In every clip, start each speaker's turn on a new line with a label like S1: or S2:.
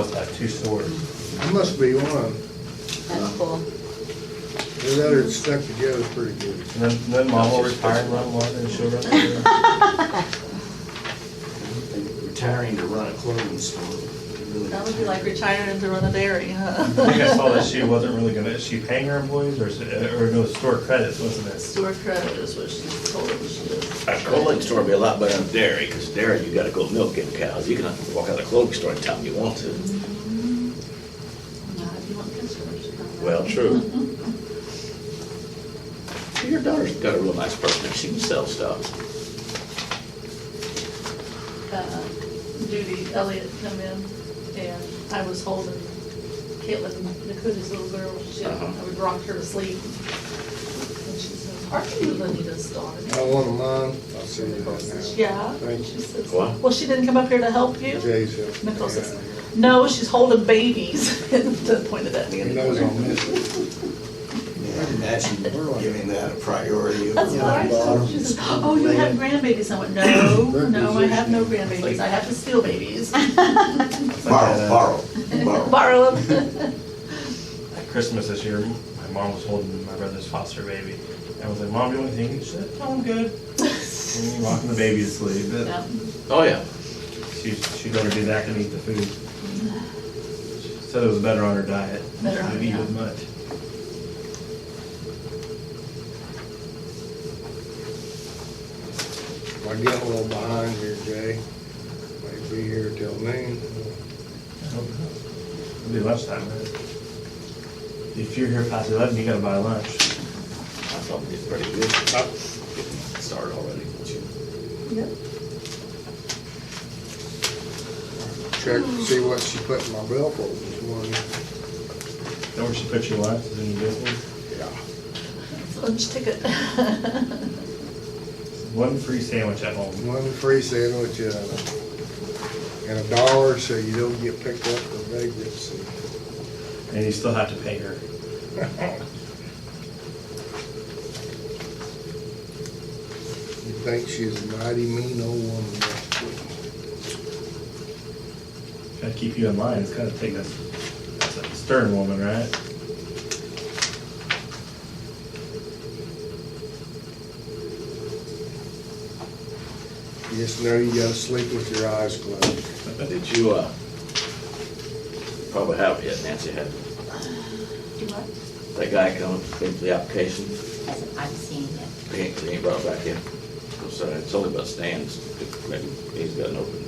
S1: uh, two stores.
S2: It Must be one.
S3: That's cool.
S2: The other it's stuck together pretty good.
S1: And then, then mom will retire and run one and she'll run the other.
S4: Retiring to run a clothing store. really.
S5: That would be like retiring to run a dairy,
S1: I think I
S5: huh?
S1: saw that she wasn't really gonna, is she paying her employees or, is it- or no, store credits, wasn't it?
S5: Store credit is what she's told us she is.
S6: A clothing store would be a lot um, better than dairy, because dairy, you gotta go milk in cows. You can walk out of the clothing store anytime you want to.
S5: Not if you want customers to come.
S6: Well, true. Your daughter's got a real nice person. She can sell stuff.
S5: Uh, Judy Elliott come in, and I was holding Caitlin, Nakuda's little girl, she,
S6: Uh-huh.
S5: I would rock her to sleep. And she says, are you Lenita's daughter?
S2: I want a mine. I'll send you that
S5: Yeah.
S2: Thank you.
S5: She says,
S6: What?
S5: Well, she didn't come up here to help you?
S2: now. Jay's helping.
S5: Nicole says, no, she's holding babies, and pointed at me.
S2: He
S5: in the
S2: knows
S5: corner.
S2: I'll miss it.
S4: Yeah, I'd Imagine giving that a priority.
S5: That's what I said. She says, oh, you have grandbabies. I went, no, no, I have no grandbabies. I have to steal babies.
S4: Borrow, borrow, borrow.
S5: Borrow them.
S1: At Christmas this year, my mom was holding my brother's foster baby. I was like, Mom, do you want anything? She said, No, I'm good. And you walking the baby to sleep. but
S5: Yeah.
S6: Oh, yeah.
S1: She, she'd rather do that than eat the food. She Said it was better on her diet.
S5: Better on her
S1: Didn't eat
S5: diet.
S1: as much.
S2: I get a little behind here, Jay. Might be here till noon.
S1: I don't know. It'll be lunchtime, right? If you're here past eleven, you gotta buy lunch.
S6: I thought we did pretty good.
S2: Uh,
S6: Started already.
S5: Yep.
S2: Check to see what she put in my billfold this morning.
S1: Know where she put your lunch, is in your business?
S2: Yeah.
S5: It's a Lunch ticket.
S1: One free sandwich at home.
S2: One free sandwich and a, and a dollar so you don't get picked up for vagrancy.
S1: And you still have to pay her.
S2: You think she's a mighty mean old woman. but
S1: Gotta keep you in line, it's gotta take a, that's a stern woman, right?
S2: You just know you gotta sleep with your eyes closed.
S6: Did you, uh, probably have it yet, Nancy had,
S5: Do what?
S6: that guy come, came to the application?
S3: Hasn't- I've seen it.
S6: He ain't, he ain't brought it back in. I'm sorry, it's only about stands. Maybe he's got an open.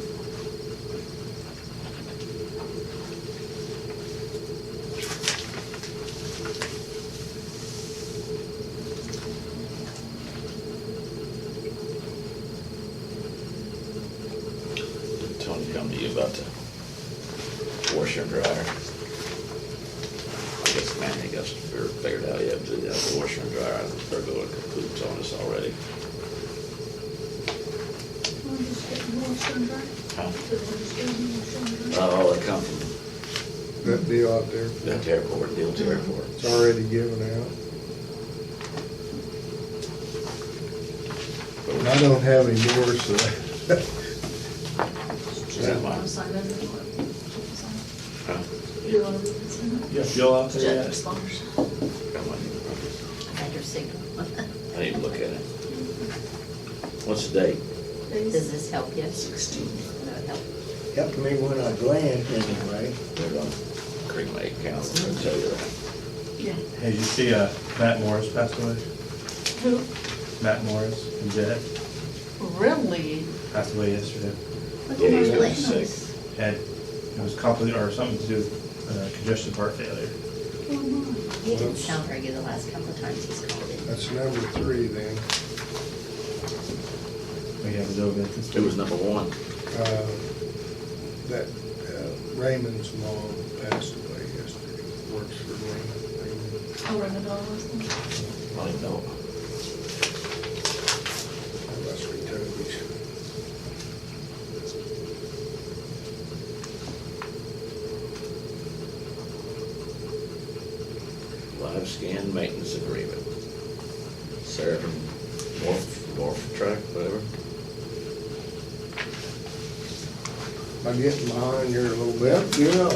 S6: Did Tony come to you about the washer and dryer? I guess Manny got some figured figured out yet, but yeah, the washer and dryer, they're going kaput on us already. Huh? Uh, Oh, they come from
S2: That deal out there,
S6: that airport, deal to airport.
S2: it's already given out. And I don't have any more, so.
S6: Is that mine?
S5: Don't sign it. Sign
S6: Huh?
S5: it. You want to sign it?
S1: Yeah, Bill out there
S5: Jet
S1: yet?
S5: responders.
S6: Got mine in the pocket.
S3: I had your signal.
S6: I need to look at it. What's the date?
S3: Does this help you?
S5: Sixteen.
S3: No, it helps.
S4: Helped me when I glanced anyway.
S6: They're gonna cremate council, I'll tell you that.
S5: Yeah.
S1: Hey, did you see, uh, Matt Morris passed away?
S5: Who?
S1: Matt Morris from Jet
S5: Really?
S1: passed away yesterday.
S6: Yeah, he's gonna be sick.
S1: Had, it was complicated, or something to do with uh, congestion heart failure.
S3: He didn't sound very good the last couple of times he's called in.
S2: That's number three then.
S1: We have a over at this.
S6: It was number one.
S2: Uh, That uh, Raymond's mom passed away yesterday, works for Raymond. Raymond.
S5: I'll run the bell with them.
S6: I didn't know.
S2: That's where Toby's.
S6: Live scan maintenance agreement. Sarah from Morph, Morph Track, whatever.
S2: I'm getting behind here a little bit, you know.